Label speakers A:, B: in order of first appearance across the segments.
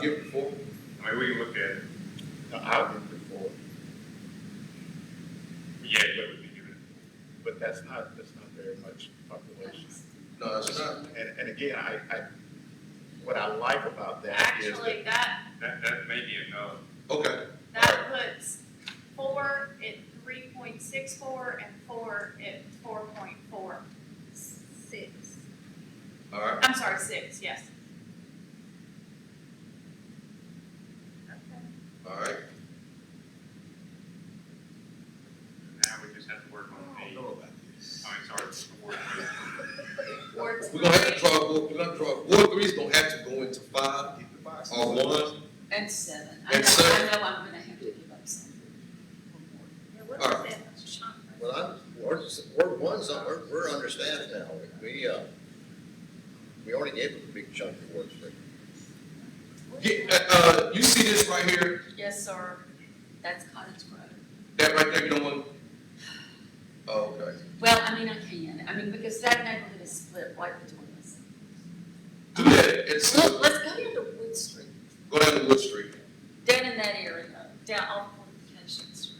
A: Give before?
B: I mean, we can look at, it.
A: No, I'll give before,
B: yeah, but we can do it.
C: but that's not, that's not very much population.
A: no, that's not,
C: And, and again, I, I, what I like about that is that
D: Actually, that,
B: That, that may be enough.
A: okay,
D: that puts four at three point six four and four at four point four six.
A: all right,
D: I'm sorry, six, yes.
A: all right,
B: Now we just have to work on
C: I
B: the,
C: don't
B: Oh, I
C: know about this.
B: mean, sorry, it's the word.
D: Ward
A: we're gonna have to
D: three,
A: draw, we're gonna draw, Ward three's gonna have to go into five or one,
E: And seven. I
A: And
E: know-
A: seven.
E: I know I'm gonna have to give up some.
A: all right.
F: Well, I'm, we're, we're one's, we're, we're understaffed now, we, uh, we already gave them a big chunk of work, so.
A: Yeah, uh, uh, you see this right here,
E: Yes, sir. That's Cottage Grove.
A: that right there, you don't want? Oh, okay,
E: Well, I mean, I can, I mean, because that neighborhood is split right between us.
A: do that, it's,
E: Look,
A: go
E: let's go down to Wood Street,
A: down to Wood Street,
E: down in that area, down off Fortification Street,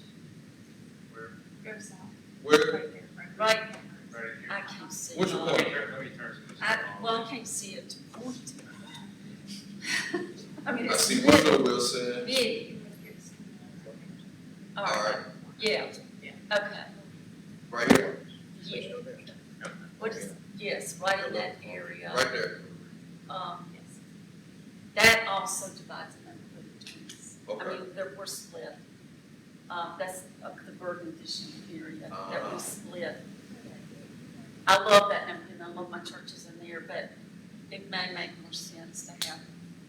D: go south,
A: where,
D: right there, right there.
E: right?
B: Right here.
E: I can't see.
A: What's your
B: Let me turn, let me turn some of this
E: I,
B: off.
E: well, I can't see it to point. I mean,
A: I
E: it's
A: see
E: big,
A: Woodrow Wilson,
E: big, all
A: all
E: right,
A: right,
E: yeah,
D: Yeah.
E: okay,
A: right here,
E: yeah, what is, yes, right in that area.
A: right there,
E: Um,
D: Yes.
E: that also divides the neighborhood between us. I
A: okay,
E: mean, they're, we're split. Um, that's of the Bourbon fishing area that
A: Ah.
E: we split. I love that neighborhood, and I love my churches in there, but it may make more sense to have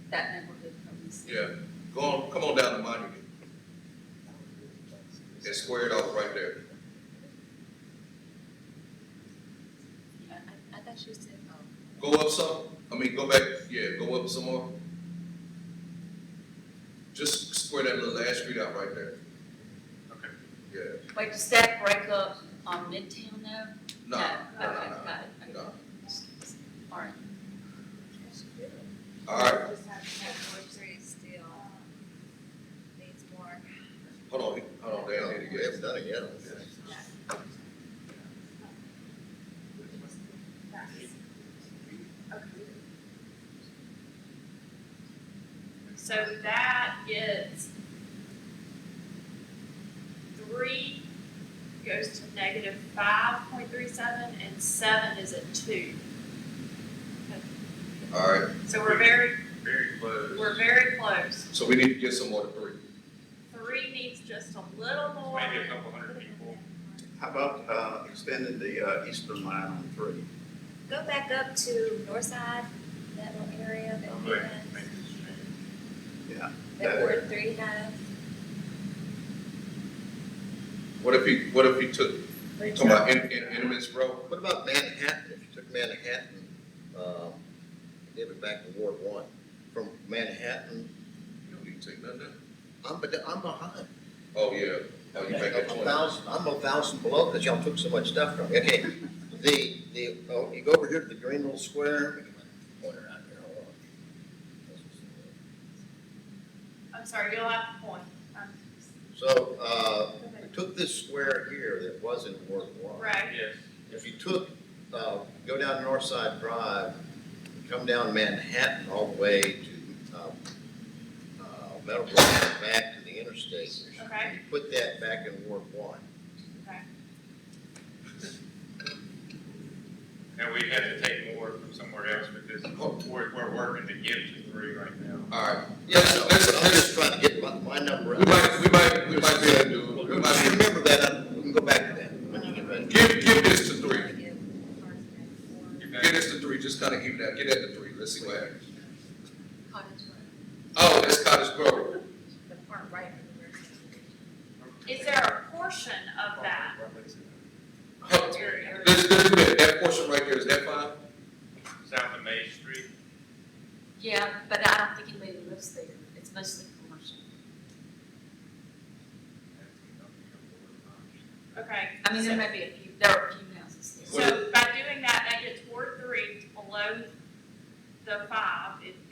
E: that neighborhood from this.
A: yeah, go on, come on down to Monument. It's squared off right there.
E: Yeah, I, I thought you said, oh.
A: Go up some, I mean, go back, yeah, go up some more. Just square that little last street out right there.
B: Okay.
A: Yeah,
E: Wait, does that break up on Midtown though?
A: no, no,
E: Okay,
A: no,
E: got it,
A: no, no.
E: all right.
A: All right,
G: Just have to have Ward Street still needs more.
A: hold on, hold on,
F: Yeah,
A: down here to
F: we
A: get.
F: haven't done it yet, I don't think.
D: So that is three goes to negative five point three seven and seven is at two.
A: All right,
D: So we're very,
B: Very close.
D: we're very close.
A: so we need to get some more to three.
D: Three needs just a little more.
B: Maybe a couple hundred people.
C: How about, uh, extending the, uh, eastern line on three?
G: Go back up to north side, that little area that
B: I'm
G: we
B: like,
G: had,
B: maybe it's strange.
G: that Ward Three has.
A: What if he, what if he took, come on, in, in, in this row?
F: What about Manhattan, if you took Manhattan, um, and gave it back to Ward One, from Manhattan,
A: You don't need to take none of that.
F: I'm, but I'm behind.
A: Oh, yeah, oh, you make
F: I'm
A: that
F: a
A: twenty.
F: thousand, I'm a thousand below, cause y'all took so much stuff from me, okay, the, the, oh, you go over here to the green little square. Look at my Pointer out here, hold on.
D: I'm sorry, you'll have a point. Um,
F: So, uh, we took this square here that wasn't Ward One.
D: Right,
B: Yes,
F: If you took, uh, go down Northside Drive, come down Manhattan all the way to, uh, uh, Meadowbrook, and back to the interstate.
D: Okay.
F: You put that back in Ward One.
D: okay.
B: and we had to take more from somewhere else because we're, we're working to get to three right now.
A: All right,
F: Yeah,
A: yes,
F: no,
A: that's,
F: I'm just
A: that's,
F: trying to get my, my number. out.
A: we might, we might, we might be able to do, it. we might
F: Just
A: be-
F: Remember that, uh, we can go back to that when you get ready.
A: give, give this to three.
B: Get back-
A: Get us to three, just kind of even out, get at the three, let's see what happens.
E: Cottage Grove,
A: Oh, that's Cottage Grove.
G: The part right where
D: Is there a portion of that
A: Huh,
D: area?
A: Let's, let's do that, that portion right there, is that fine?
B: South of Main Street,
E: yeah, but I don't think anybody lives there, it's mostly commercial.
D: Okay.
E: I mean, there may be a few, there are a few houses there.
D: So by doing that, that gets Ward three below the five. It,